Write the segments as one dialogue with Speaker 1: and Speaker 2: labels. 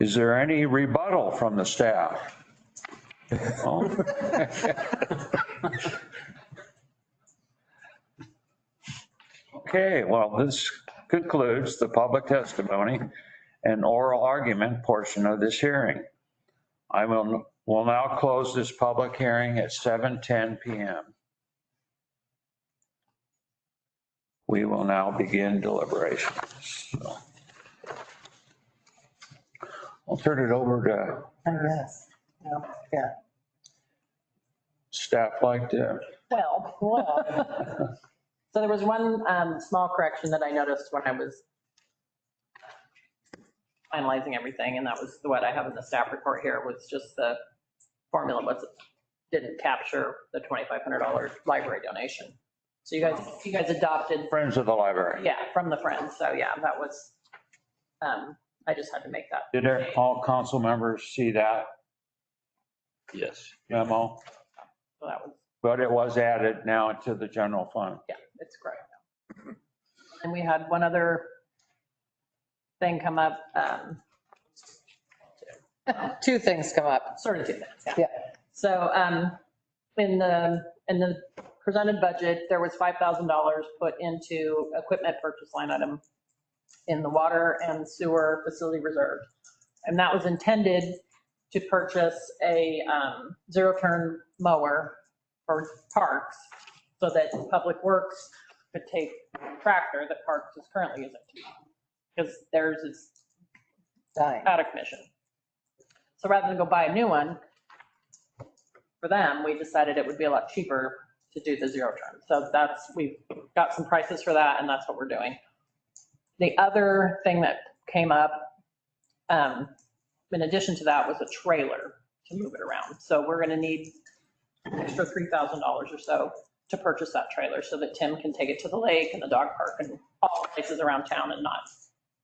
Speaker 1: Is there any rebuttal from the staff? Oh. No? Okay, well, this concludes the public testimony and oral argument portion of this hearing. I will, will now close this public hearing at 7:10 PM. We will now begin deliberations. So I'll turn it over to
Speaker 2: I guess. Yeah, Yeah.
Speaker 1: staff like to,
Speaker 2: Well, well. So there was one um, small correction that I noticed when I was finalizing everything, and that was what I have in the staff report here, was just the formula was, didn't capture the $2,500 library donation. So you guys, you guys adopted,
Speaker 1: Friends of the Library.
Speaker 2: yeah, from the Friends, so yeah, that was, um, I just had to make that.
Speaker 1: Did all council members see that
Speaker 3: Yes.
Speaker 1: memo?
Speaker 2: So that was
Speaker 1: But it was added now to the general fund.
Speaker 2: Yeah, it's great. And we had one other thing come up. um,
Speaker 4: Two things come up.
Speaker 2: sort of two things, yeah.
Speaker 4: Yeah.
Speaker 2: So um, in the, in the presented budget, there was $5,000 put into equipment purchase line item in the water and sewer facility reserve. And that was intended to purchase a um, zero-turn mower for parks so that Public Works could take the tractor that Parks is currently using. Because theirs is
Speaker 4: Dying.
Speaker 2: out of commission. So rather than go buy a new one for them, we decided it would be a lot cheaper to do the zero turn. So that's, we've got some prices for that and that's what we're doing. The other thing that came up, um, in addition to that was a trailer to move it around. So we're going to need an extra $3,000 or so to purchase that trailer so that Tim can take it to the lake and the dog park and all places around town and not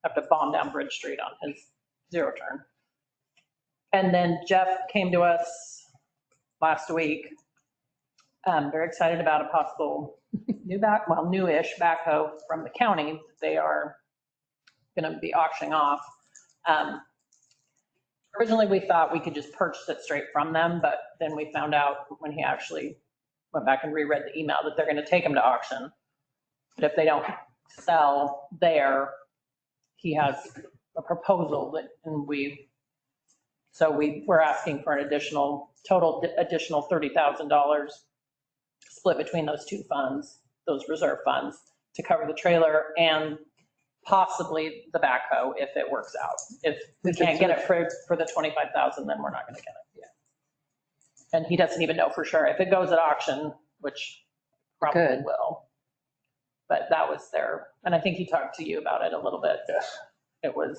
Speaker 2: have to bomb down Bridge Street on his zero turn. And then Jeff came to us last week, um, very excited about a possible new back, well, newish backhoe from the county that they are going to be auctioning off. Um, Originally, we thought we could just purchase it straight from them, but then we found out when he actually went back and reread the email that they're going to take them to auction. But if they don't sell there, he has a proposal that, and we, so we, we're asking for an additional, total additional $30,000 split between those two funds, those reserve funds, to cover the trailer and possibly the backhoe if it works out. If we can't get it for, for the 25,000, then we're not going to get it. And he doesn't even know for sure. If it goes at auction, which probably
Speaker 4: Good.
Speaker 2: will. But that was there, and I think he talked to you about it a little bit.
Speaker 1: Yes.
Speaker 2: It was,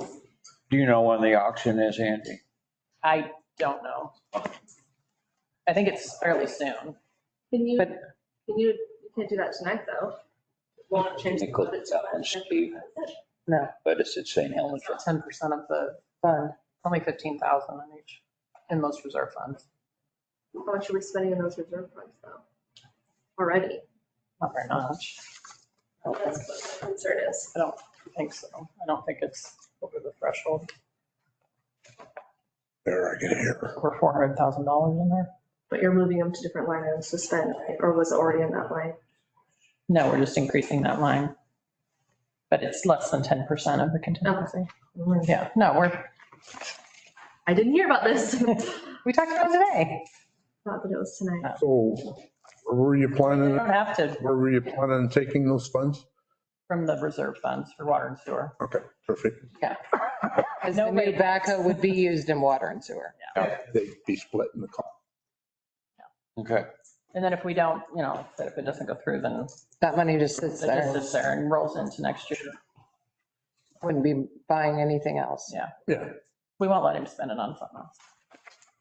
Speaker 1: Do you know when the auction is, Andy?
Speaker 2: I don't know. I think it's fairly soon.
Speaker 5: Can you,
Speaker 4: But-
Speaker 5: can you, you can't do that tonight, though. Won't change the
Speaker 3: Nickel
Speaker 5: budget.
Speaker 3: challenge to,
Speaker 4: No,
Speaker 3: but it's at St. Helens.
Speaker 2: Ten percent of the,
Speaker 4: fund.
Speaker 2: only fifteen thousand in each, in most reserve funds,
Speaker 5: How much are we spending in those reserve funds, though? Already,
Speaker 2: not very much. I
Speaker 5: that's what my concern is.
Speaker 2: don't think so. I don't think it's over the threshold.
Speaker 6: There, I can hear.
Speaker 2: Over four hundred thousand dollars in there?
Speaker 5: But you're moving them to different line items to spend, right? Or was it already in that line?
Speaker 2: No, we're just increasing that line. But it's less than ten percent of the contingency. Yeah, no, we're,
Speaker 5: I didn't hear about this. Thought
Speaker 4: We talked about it today.
Speaker 5: that it was tonight.
Speaker 6: So where were you
Speaker 2: we
Speaker 6: planning,
Speaker 2: don't have to
Speaker 6: where were you planning on taking those funds?
Speaker 2: from the reserve funds for water and sewer.
Speaker 6: Okay, perfect.
Speaker 4: Because the new
Speaker 2: Nobody-
Speaker 4: backhoe would be used in water and sewer.
Speaker 6: They'd be splitting the cost.
Speaker 1: Okay.
Speaker 2: And then if we don't, you know, that if it doesn't go through, then
Speaker 4: That money just sits
Speaker 2: it just
Speaker 4: there.
Speaker 2: sits there and rolls into next year.
Speaker 4: Wouldn't be buying anything else.
Speaker 2: Yeah.
Speaker 6: Yeah.
Speaker 2: We won't let him spend it on something else.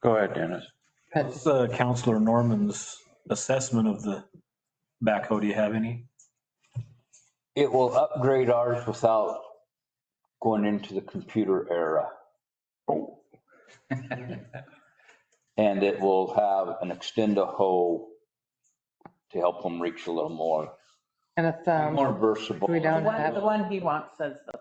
Speaker 1: Go ahead, Dennis.
Speaker 4: But
Speaker 7: What's uh, Counselor Norman's assessment of the backhoe? Do you have any?
Speaker 3: It will upgrade ours without going into the computer era.
Speaker 4: Oh.
Speaker 3: And it will have an extender hoe to help them reach a little more,
Speaker 4: And a thumb.
Speaker 3: more versatile.
Speaker 4: Um, We don't
Speaker 2: The one,
Speaker 4: have-
Speaker 2: the one he wants says the